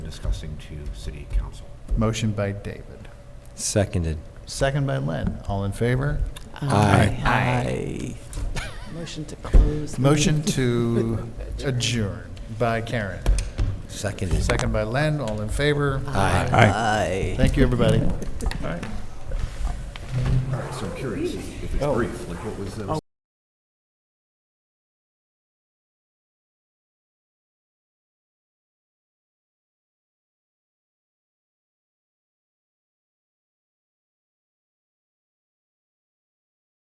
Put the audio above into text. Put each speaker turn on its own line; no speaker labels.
discussing to city council.
Motion by David.
Seconded.
Second by Len. All in favor?
Aye.
Motion to close. the
Motion
meeting.
to adjourn by Karen.
Seconded.
Second by Len. All in favor?
Aye.
Aye.
Thank you, everybody.
All right, so I'm curious if it's brief, like what was the?
Oh,